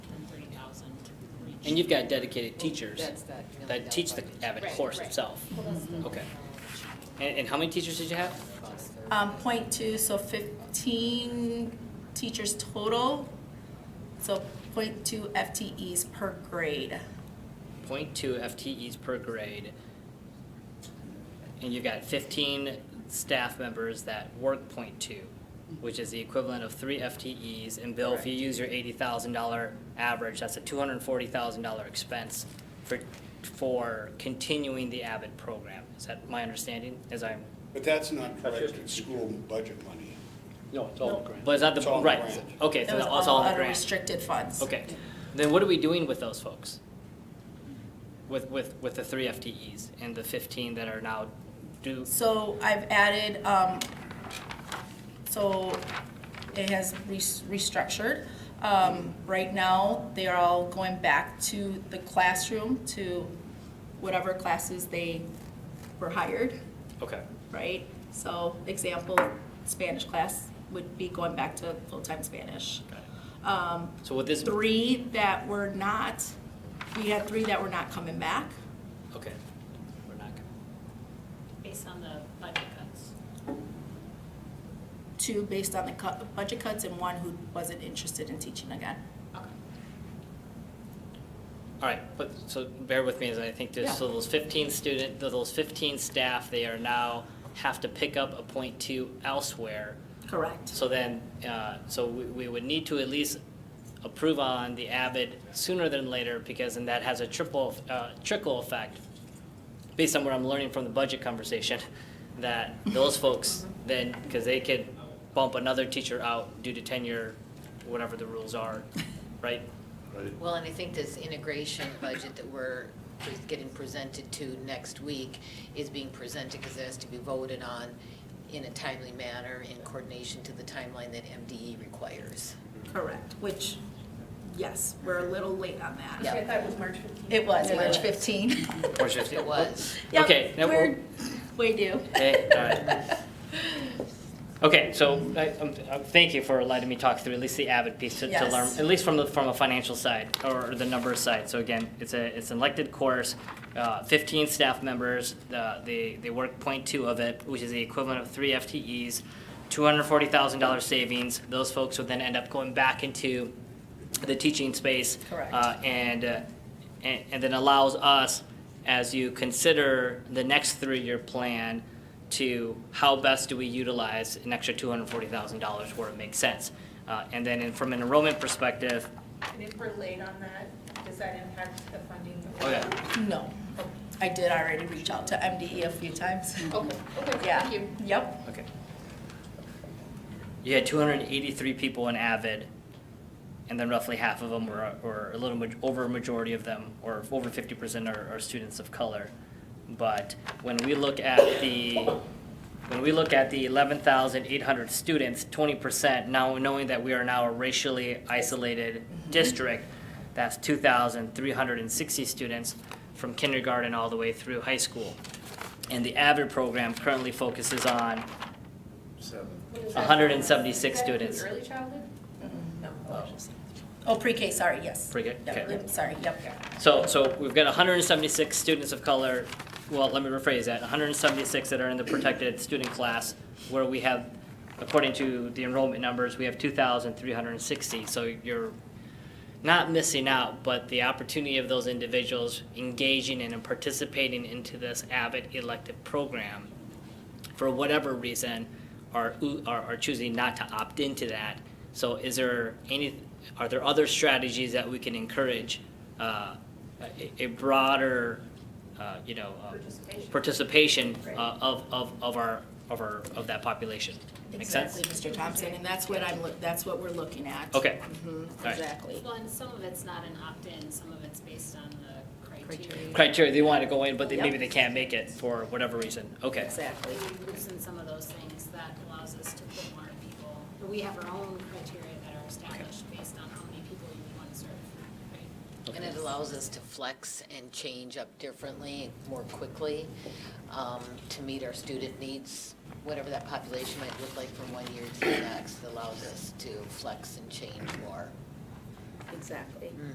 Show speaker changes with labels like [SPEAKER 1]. [SPEAKER 1] And you've got dedicated teachers
[SPEAKER 2] That's that. million dollar
[SPEAKER 1] that teach the
[SPEAKER 2] budget.
[SPEAKER 1] Avid
[SPEAKER 3] Right,
[SPEAKER 1] course
[SPEAKER 3] right.
[SPEAKER 1] itself.
[SPEAKER 3] Well, that's the-
[SPEAKER 1] Okay. And, and how many teachers did you have?
[SPEAKER 4] Um, point two, so fifteen teachers total, so point two FTEs per grade.
[SPEAKER 1] Point two FTEs per grade. And you've got fifteen staff members that work point two, which is the equivalent of three FTEs. And Bill, if you use your eighty thousand dollar average, that's a two hundred and forty thousand dollar expense for, for continuing the Avid program. Is that my understanding, as I'm,
[SPEAKER 5] But that's not
[SPEAKER 6] That's
[SPEAKER 5] correct,
[SPEAKER 6] just-
[SPEAKER 5] it's school budget money.
[SPEAKER 6] No, it's all grant.
[SPEAKER 1] but is that the,
[SPEAKER 5] It's all
[SPEAKER 1] right,
[SPEAKER 5] grant.
[SPEAKER 1] okay,
[SPEAKER 4] That
[SPEAKER 1] so
[SPEAKER 4] was
[SPEAKER 1] that's all
[SPEAKER 4] all
[SPEAKER 1] in the
[SPEAKER 4] out of
[SPEAKER 1] grant.
[SPEAKER 4] restricted funds.
[SPEAKER 1] Okay, then what are we doing with those folks? With, with, with the three FTEs and the fifteen that are now due,
[SPEAKER 4] So I've added, um, so it has res- restructured. Um, right now, they are all going back to the classroom, to whatever classes they were hired,
[SPEAKER 1] okay,
[SPEAKER 4] right? So example, Spanish class would be going back to full-time Spanish. Um,
[SPEAKER 1] got it. So with this,
[SPEAKER 4] Three that were not, we had three that were not coming back,
[SPEAKER 1] okay, we're not, gonna-
[SPEAKER 3] Based on the budget cuts.
[SPEAKER 4] two based on the cut, budget cuts, and one who wasn't interested in teaching again.
[SPEAKER 1] all right, but, so bear with me as I think there's, so those fifteen student, those fifteen staff, they are now have to pick up a point two elsewhere.
[SPEAKER 4] Correct.
[SPEAKER 1] So then, uh, so we, we would need to at least approve on the Avid sooner than later, because then that has a triple, uh, trickle effect, based on what I'm learning from the budget conversation, that those folks then, because they could bump another teacher out due to tenure, whatever the rules are, right?
[SPEAKER 2] Well, and I think this integration budget that we're pre- getting presented to next week is being presented because it has to be voted on in a timely manner in coordination to the timeline that MDE requires.
[SPEAKER 4] Correct, which, yes, we're a little late on that.
[SPEAKER 2] Yeah.
[SPEAKER 3] I thought it was March 15th.
[SPEAKER 4] It was
[SPEAKER 2] It
[SPEAKER 4] March
[SPEAKER 2] was.
[SPEAKER 4] 15.
[SPEAKER 1] Or just-
[SPEAKER 2] It was.
[SPEAKER 4] Yep,
[SPEAKER 1] Okay, now
[SPEAKER 4] we're- We do.
[SPEAKER 1] Hey, all right. Okay, so I, um, uh, thank you for letting me talk through at least the Avid piece to, to learn,
[SPEAKER 4] Yes.
[SPEAKER 1] at least from the, from a financial side or the numbers side. So again, it's a, it's an elected course, uh, fifteen staff members, uh, they, they work point two of it, which is the equivalent of three FTEs, two hundred and forty thousand dollar savings. Those folks would then end up going back into the teaching space.
[SPEAKER 4] Correct.
[SPEAKER 1] uh, and, uh, and, and then allows us, as you consider the next three-year plan, to how best do we utilize an extra two hundred and forty thousand dollars where it makes sense? Uh, and then in- from an enrollment perspective,
[SPEAKER 3] And if we're late on that, does that impact the funding?
[SPEAKER 1] okay,
[SPEAKER 4] No, I did already reach out to MDE a few times.
[SPEAKER 3] Okay, okay,
[SPEAKER 4] Yeah.
[SPEAKER 3] thank you.
[SPEAKER 4] Yep,
[SPEAKER 1] okay. You had two hundred and eighty-three people in Avid, and then roughly half of them were, or a little maj- over a majority of them, or over fifty percent are, are students of color. But when we look at the, when we look at the eleven thousand eight hundred students, twenty percent, now knowing that we are now a racially isolated district, that's two thousand three hundred and sixty students from kindergarten all the way through high school. And the AVID program currently focuses on
[SPEAKER 3] What is that?
[SPEAKER 1] 176
[SPEAKER 3] Does that include
[SPEAKER 1] students.
[SPEAKER 3] Early childhood?
[SPEAKER 4] oh, pre-K, sorry, yes.
[SPEAKER 1] Pre-K,
[SPEAKER 4] Yep,
[SPEAKER 1] okay.
[SPEAKER 4] yep, Sorry, yep.
[SPEAKER 1] So, so we've got hundred and seventy-six students of color, well, let me rephrase that, hundred and seventy-six that are in the protected student class, where we have, according to the enrollment numbers, we have two thousand three hundred and sixty, so you're not missing out, but the opportunity of those individuals engaging in and participating into this Abbott elective program, for whatever reason, are, are, are choosing not to opt into that. So is there any, are there other strategies that we can encourage, uh, a, a broader, uh, you know, uh,
[SPEAKER 3] Participation.
[SPEAKER 1] participation
[SPEAKER 3] Right.
[SPEAKER 1] uh, of, of, of our, of our, of that population? Make sense?
[SPEAKER 4] Exactly, Mr. Thompson, and that's what I'm, look- that's what we're looking at.
[SPEAKER 1] Okay,
[SPEAKER 4] Mhm,
[SPEAKER 1] right.
[SPEAKER 4] Exactly.
[SPEAKER 3] Well, and some of it's not an opt-in, some of it's based on the criteria.
[SPEAKER 2] Criteria.
[SPEAKER 1] criteria, they want to go in, but they, maybe
[SPEAKER 4] Yep.
[SPEAKER 1] they can't make it for whatever reason, okay.
[SPEAKER 4] Exactly.
[SPEAKER 3] We loosen some of those things that allows us to put more people, but we have our own criteria that are established based on how many people you want to serve, right?
[SPEAKER 2] And it allows us to flex and change up differently, more quickly, um, to meet our student needs, whatever that population might look like from one year to the next. It allows us to flex and change more.
[SPEAKER 4] Exactly.